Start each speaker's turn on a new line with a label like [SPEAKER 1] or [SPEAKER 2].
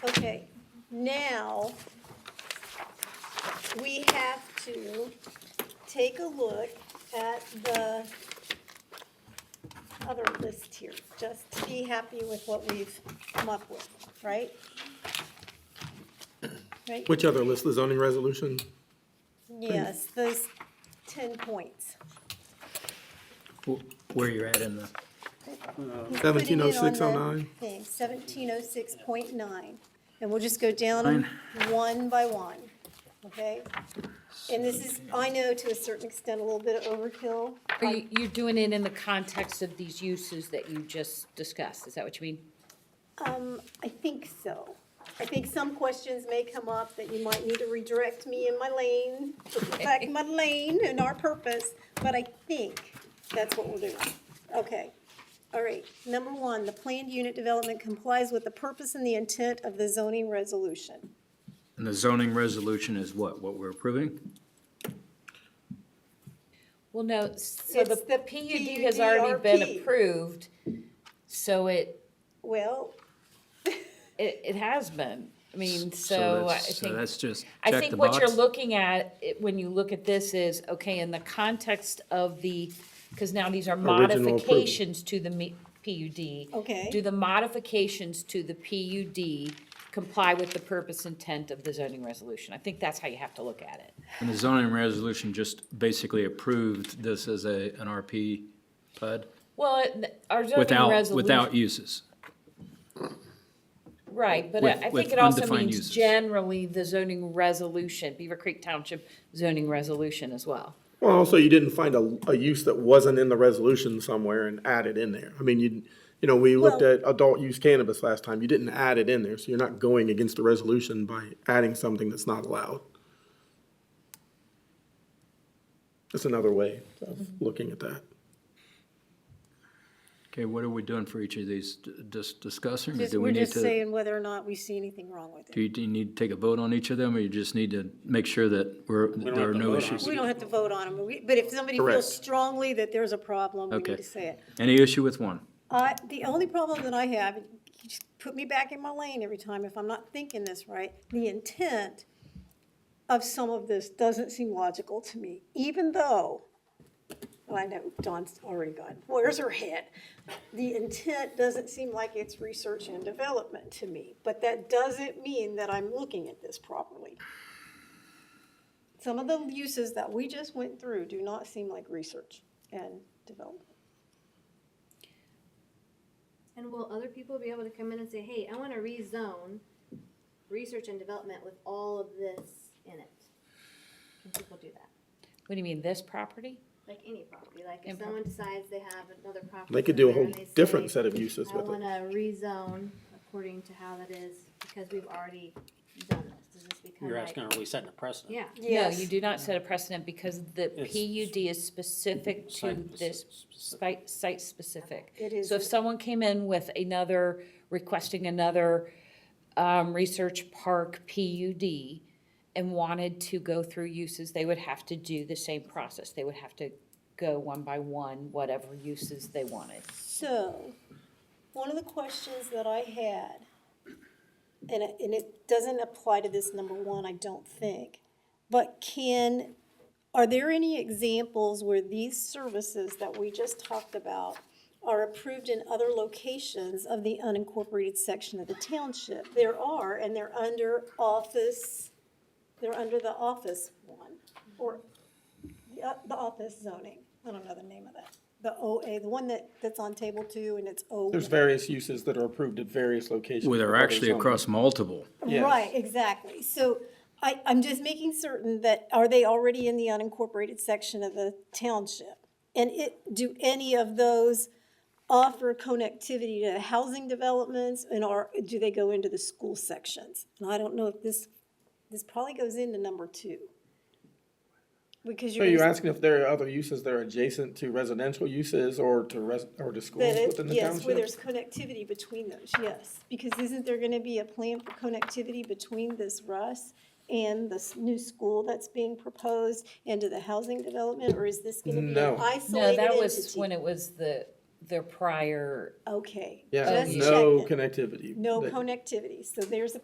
[SPEAKER 1] now, we have to take a look at the other list here, just to be happy with what we've come up with, right? Right,
[SPEAKER 2] Which other list, the zoning resolution?
[SPEAKER 1] yes, those ten points.
[SPEAKER 3] Wh- Where you're at in the,
[SPEAKER 2] Seventeen oh six oh nine?
[SPEAKER 1] Seventeen oh six point nine, and we'll just go down them one by one, okay? And this is, I know to a certain extent, a little bit of overkill.
[SPEAKER 4] Are you, you're doing it in the context of these uses that you just discussed, is that what you mean?
[SPEAKER 1] Um, I think so. I think some questions may come up that you might need to redirect me in my lane, back in my lane and our purpose, but I think that's what we'll do. Okay. All right, number one, the planned unit development complies with the purpose and the intent of the zoning resolution.
[SPEAKER 3] and the zoning resolution is what, what we're approving?
[SPEAKER 4] Well, no, so the
[SPEAKER 1] It's the
[SPEAKER 4] PUD has already been
[SPEAKER 1] PUDRP.
[SPEAKER 4] approved, so it,
[SPEAKER 1] Well,
[SPEAKER 4] it, it has been. I mean, so I
[SPEAKER 3] that's- So
[SPEAKER 4] think,
[SPEAKER 3] that's just
[SPEAKER 4] I
[SPEAKER 3] check the
[SPEAKER 4] think what you're
[SPEAKER 3] box.
[SPEAKER 4] looking at, it- when you look at this is, okay, in the context of the, because now these are
[SPEAKER 2] Original approval.
[SPEAKER 4] modifications to the me- PUD.
[SPEAKER 1] Okay.
[SPEAKER 4] Do the modifications to the PUD comply with the purpose intent of the zoning resolution? I think that's how you have to look at it.
[SPEAKER 3] And the zoning resolution just basically approved this as a, an RP PUD
[SPEAKER 4] Well, it- our zoning
[SPEAKER 3] without, without
[SPEAKER 4] resolution,
[SPEAKER 3] uses.
[SPEAKER 4] right, but
[SPEAKER 3] with-
[SPEAKER 4] I- I
[SPEAKER 3] with
[SPEAKER 4] think it also
[SPEAKER 3] undefined
[SPEAKER 4] means
[SPEAKER 3] uses.
[SPEAKER 4] generally the zoning resolution, Beaver Creek Township zoning resolution as well.
[SPEAKER 2] Well, also you didn't find a, a use that wasn't in the resolution somewhere and add it in there. I mean, you, you know, we looked
[SPEAKER 1] Well-
[SPEAKER 2] at adult use cannabis last time. You didn't add it in there, so you're not going against the resolution by adding something that's not allowed. That's another way of looking at that.
[SPEAKER 3] Okay, what are we doing for each of these? D- Just discussing or
[SPEAKER 1] just-
[SPEAKER 3] do we
[SPEAKER 1] we're
[SPEAKER 3] need
[SPEAKER 1] just
[SPEAKER 3] to?
[SPEAKER 1] saying whether or not we see anything wrong with
[SPEAKER 3] Do
[SPEAKER 1] it.
[SPEAKER 3] you, do you need to take a vote on each of them or you just need to make sure that we're, there are no issues?
[SPEAKER 1] We don't have to vote on them, but if somebody
[SPEAKER 2] Correct.
[SPEAKER 1] feels strongly that there's a problem, we
[SPEAKER 3] Okay.
[SPEAKER 1] need to say it.
[SPEAKER 3] Any issue with one?
[SPEAKER 1] I, the only problem that I have, you just put me back in my lane every time if I'm not thinking this right, the intent of some of this doesn't seem logical to me, even though, well, I know Dawn's already gone, where's her head? The intent doesn't seem like it's research and development to me, but that doesn't mean that I'm looking at this properly. Some of the uses that we just went through do not seem like research and development.
[SPEAKER 5] And will other people be able to come in and say, hey, I wanna rezone research and development with all of this in it? Can people do that?
[SPEAKER 4] What do you mean, this property?
[SPEAKER 5] Like any property, like
[SPEAKER 4] Any
[SPEAKER 5] if someone decides they have another property.
[SPEAKER 2] They could do a
[SPEAKER 5] somewhere
[SPEAKER 2] whole
[SPEAKER 5] and they say,
[SPEAKER 2] different set of uses with it.
[SPEAKER 5] I wanna rezone according to how that is, because we've already done this, does this become
[SPEAKER 6] You're
[SPEAKER 5] like-
[SPEAKER 6] asking, are we setting a precedent?
[SPEAKER 5] Yeah,
[SPEAKER 4] No, you do not set a precedent because the
[SPEAKER 6] It's-
[SPEAKER 4] PUD is specific to
[SPEAKER 6] Site-
[SPEAKER 4] this site,
[SPEAKER 6] specific.
[SPEAKER 4] site-specific.
[SPEAKER 1] It is.
[SPEAKER 4] So if someone came in with another, requesting another, um, research park PUD and wanted to go through uses, they would have to do the same process. They would have to go one by one, whatever uses they wanted.
[SPEAKER 1] So, one of the questions that I had, and it, and it doesn't apply to this number one, I don't think, but can, are there any examples where these services that we just talked about are approved in other locations of the unincorporated section of the township? There are, and they're under office, they're under the office one, or the, uh, the office zoning, I don't know the name of that. The OA, the one that, that's on table two and it's O.
[SPEAKER 2] There's various uses that are approved at various locations.
[SPEAKER 3] Well, they're
[SPEAKER 2] where
[SPEAKER 3] actually
[SPEAKER 2] there's zoning.
[SPEAKER 3] across multiple.
[SPEAKER 2] Yes.
[SPEAKER 1] Right, exactly. So I, I'm just making certain that, are they already in the unincorporated section of the township? And it, do any of those offer connectivity to housing developments and are, do they go into the school sections? And I don't know if this, this probably goes into number two. Because
[SPEAKER 2] So
[SPEAKER 1] you're.
[SPEAKER 2] you're
[SPEAKER 1] gonna-
[SPEAKER 2] asking if there are other uses that are adjacent to residential uses or to res, or to schools
[SPEAKER 1] That it-
[SPEAKER 2] within the
[SPEAKER 1] yes, where
[SPEAKER 2] township?
[SPEAKER 1] there's connectivity between those, yes. Because isn't there gonna be a plan for connectivity between this Russ and this new school that's being proposed into the housing development, or is this gonna be
[SPEAKER 2] No.
[SPEAKER 1] an
[SPEAKER 2] No,
[SPEAKER 4] No,
[SPEAKER 1] isolated
[SPEAKER 4] that was
[SPEAKER 1] entity?
[SPEAKER 4] when it was the, their prior
[SPEAKER 1] Okay.
[SPEAKER 2] Yeah,
[SPEAKER 1] just
[SPEAKER 2] no
[SPEAKER 1] checking.
[SPEAKER 2] connectivity.
[SPEAKER 1] No
[SPEAKER 2] That-
[SPEAKER 1] connectivity, so there's a